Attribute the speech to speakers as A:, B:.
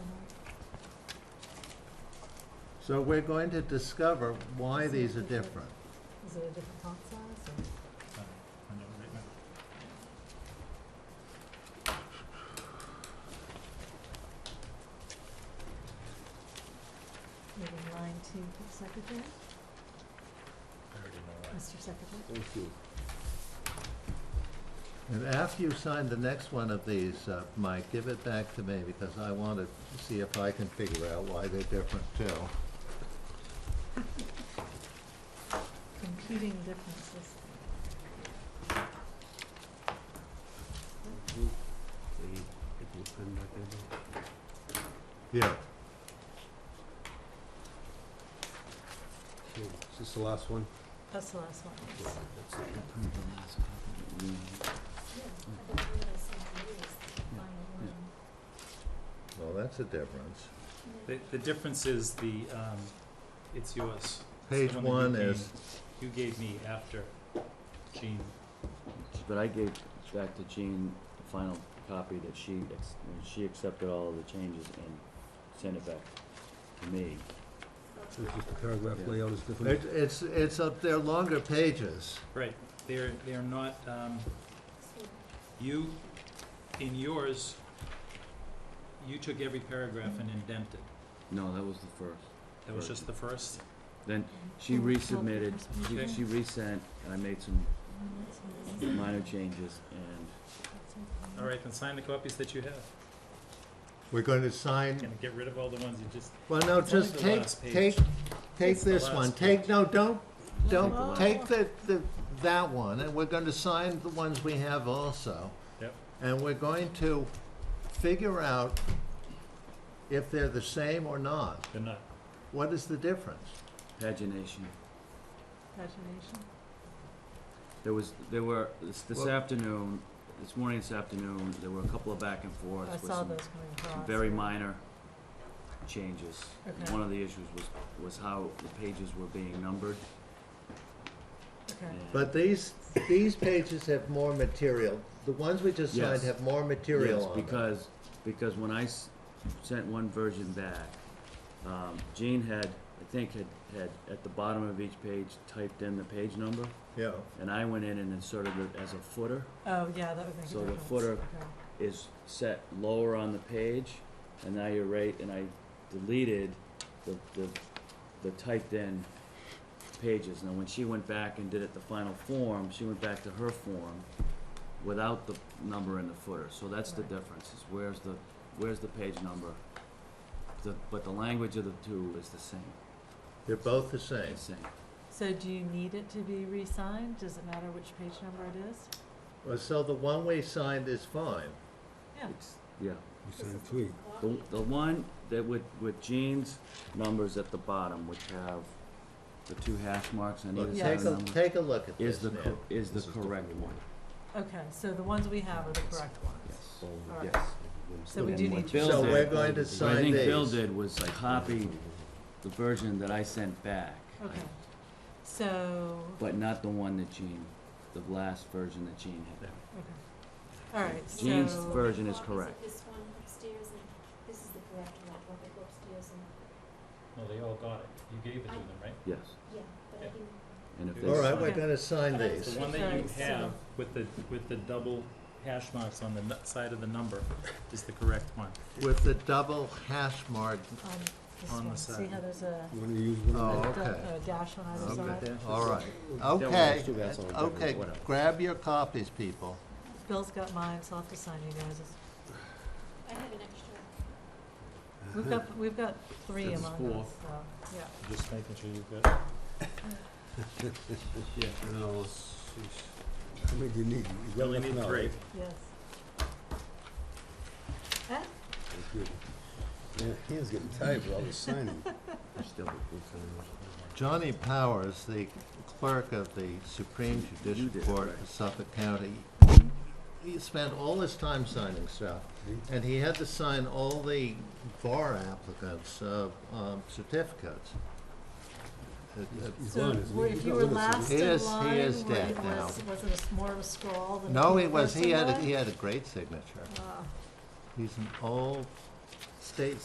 A: So we're going to discover why these are different.
B: Is it a different font size or? Maybe line two for the secretary, Mr. Secretary.
C: Thank you.
A: And after you sign the next one of these, uh, Mike, give it back to me because I want to see if I can figure out why they're different too.
B: Computing differences.
C: They get the pen back there.
A: Yeah.
C: Okay, Is this the last one?
B: That's the last one.
C: Yeah, that's it.
A: Well, that's a difference.
D: The, the difference is the, um, it's yours.
A: Page
D: It's the that you
A: one is,
D: gave- You gave me after Gene.
E: But I gave back to Jean the final copy that she, ex- when she accepted all of the changes and sent it back to me.
C: So it's just the paragraph
E: Yeah.
C: layout is different.
A: it- it's, it's up there longer pages.
D: Right, they're, they're not, um, you, in yours, you took every paragraph and indented.
E: No, that was the first.
D: That was just the first.
E: Then she resubmitted, she, she resent, and I made some minor changes and
D: All right, then sign the copies that you have.
A: We're going to sign,
D: And get rid of all the ones you just,
A: well, no,
D: It's only
A: just
D: the
A: take,
D: last page.
A: take, take
D: It's the
A: this one.
D: last
A: Take,
D: page.
A: no, don't, don't,
B: last-
A: take the, the, that one, and we're going to sign the ones we have also.
D: Yep.
A: And we're going to figure out if they're the same or not.
D: they're not.
A: What is the difference?
E: pagination.
B: Pagination.
E: There was, there were, this, this
A: Well-
E: afternoon, this morning, this afternoon, there were a couple of back and forths
B: I
E: with
B: saw
E: some
B: those coming across.
E: very minor changes.
B: Okay.
E: One of the issues was, was how the pages were being numbered.
B: Okay.
E: and-
A: But these, these pages have more material. The ones we just signed
E: Yes.
A: have more material
E: Yes,
A: on them.
E: because, because when I s- sent one version back, um, Jean had, I think, had, had at the bottom of each page typed in the page number,
A: Yeah,
E: and I went in and inserted it as a footer,
B: Oh, yeah, that would make a difference.
E: So the footer-
B: Okay.
E: is set lower on the page, and now you're right, and I deleted the, the, the typed in pages. Now, when she went back and did it the final form, she went back to her form without the number in the footer, so that's the
B: Right.
E: difference, is where's the, where's the page number? The, but the language of the two is the same,
A: they're both the same.
E: the same.
B: So do you need it to be re-signed? Does it matter which page number it is?
A: Well, Uh, So the one we signed is fine.
B: Yeah.
E: It's, yeah,
C: You signed three.
E: the, the one that with, with Jean's numbers at the bottom, which have the two hash marks on
A: Look,
E: either
B: Yeah.
E: side
A: take
E: of
A: a,
E: the number,
A: take a look at
E: is
A: this
E: the,
A: now.
E: cor- is the
C: This different
E: correct
C: than
E: one,
B: Okay, so the ones we have are the correct ones.
E: yes.
C: Oh,
B: All right.
C: yes.
B: So we
E: And
B: do
E: what
B: need to.
E: Bill
A: So
E: did-
A: we're going to
E: What I
A: sign
E: think Bill
A: these.
E: did was I copied the version that I sent back.
B: Okay, so,
E: But not the one that Gene, the last version that Gene had.
B: okay, all right, so. um,
E: Jean's version is correct.
F: This one upstairs and this is the correct one, I'll go upstairs
D: No,
F: and,
D: they all got it. You gave it to them, right?
E: Yes,
F: yeah, but I
D: Yeah.
F: didn't.
E: and if
A: All
E: there's,
A: right, we're going to sign
D: The
A: these.
D: one that
B: Okay,
D: you
B: so-
D: have with the, with the double hash marks on the nu- side of the number is the correct one.
A: With the double hash mark.
B: On this
D: On the
B: one, see how
D: side.
B: there's a,
C: You wanna use one
B: a
A: Oh,
C: of
B: da-
A: okay.
B: a dash on either side?
A: Okay, all right.
C: them?
A: Okay,
C: Two guys on the back,
A: okay,
C: whatever.
A: grab your copies, people.
B: Bill's got mine, so I'll have to sign you guys.
F: I had an extra.
B: We've got, we've got three
D: That's
B: among
D: four.
B: us, so, yeah.
D: Just making sure you've got. Yeah.
C: No, let's see. How many do you need? You got
D: Only
C: enough
D: need
C: now,
D: three.
C: right?
B: Yes. Eh?
C: Thank you. Yeah, hands getting tired with all this signing.
E: still,
A: Johnny Powers, the clerk of the Supreme
E: You
A: Judicial
E: did it,
A: Court
E: right.
A: of Suffolk County, he spent all his time signing stuff, and he had to sign all the bar applicants' uh, um, certificates. Uh, It- it-
C: He's
B: So,
C: gone, isn't he?
B: were-
C: He's
B: if you
C: not
B: were
C: with us, is
B: last
C: he?
A: He
B: in
A: is-
B: line,
A: he is
B: were
A: dead
B: you-
A: now.
B: was, was it a s- more of a scroll than?
A: No,
B: the
A: he was,
B: first
A: he
B: in
A: had, a-
B: line?
A: he had a great signature.
B: Wow.
A: He's an old state